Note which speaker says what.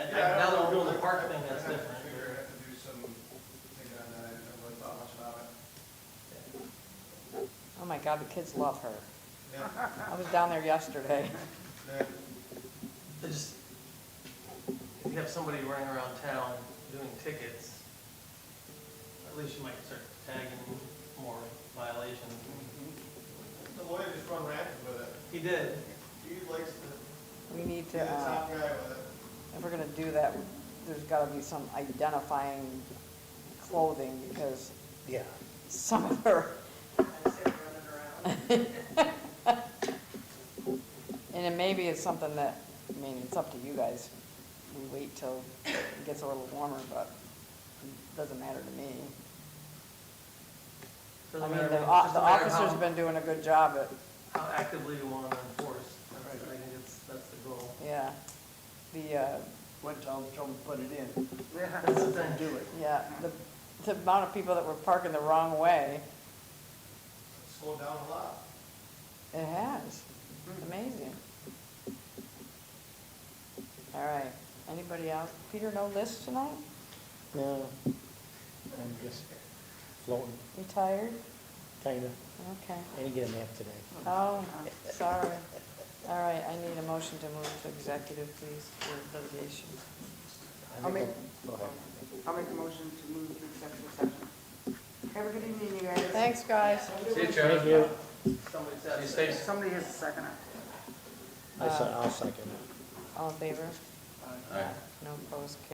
Speaker 1: Yeah, I
Speaker 2: now that we're
Speaker 1: don't know.
Speaker 2: doing the park thing, that's
Speaker 1: I'd have to
Speaker 2: different.
Speaker 1: figure- I'd have to do some thinking on that, I haven't really thought much about it.
Speaker 3: Oh my God, the kids love her.
Speaker 1: Yeah,
Speaker 3: I was down there yesterday.
Speaker 1: then,
Speaker 2: They just, if you have somebody running around town doing tickets, at least you might start tagging more violations.
Speaker 1: the lawyer just run rampant with it,
Speaker 2: He did,
Speaker 1: he likes to
Speaker 3: We need
Speaker 1: be
Speaker 3: to,
Speaker 1: the
Speaker 3: uh,
Speaker 1: top guy with it.
Speaker 3: if we're gonna do that, there's gotta be some identifying clothing because
Speaker 4: Yeah.
Speaker 3: some of her, and then maybe it's something that, I mean, it's up to you guys. We wait till it gets a little warmer, but it doesn't matter to me. I
Speaker 2: doesn't
Speaker 3: mean,
Speaker 2: matter,
Speaker 3: the,
Speaker 2: it's
Speaker 3: o-
Speaker 2: just
Speaker 3: the
Speaker 2: a matter of
Speaker 3: officers have
Speaker 2: how,
Speaker 3: been doing a good job at
Speaker 2: how actively you want to enforce, that's, I think it's, that's the goal.
Speaker 3: Yeah, the, uh,
Speaker 4: Went told, told them to put it in,
Speaker 2: That's the thing.
Speaker 4: do it.
Speaker 3: yeah, the, the amount of people that were parking the wrong way,
Speaker 1: Slow down a lot.
Speaker 3: it has,
Speaker 4: Mm-hmm.
Speaker 3: amazing. All right, anybody else? Peter, no list tonight?
Speaker 4: No, I'm just floating,
Speaker 3: You tired?
Speaker 4: kinda,
Speaker 3: Okay,
Speaker 4: and again, nap today.
Speaker 3: oh, sorry. All right, I need a motion to move to executive, please, for litigation.
Speaker 4: I
Speaker 5: I'll
Speaker 4: make a-
Speaker 5: make-
Speaker 4: Go ahead.
Speaker 5: I'll make a motion to move to executive session. Have a good evening, you guys.
Speaker 3: Thanks, guys.
Speaker 4: Thank you.
Speaker 2: Somebody said-
Speaker 5: Somebody has a second.
Speaker 4: I said, I'll second it.
Speaker 3: All in favor? No opposed,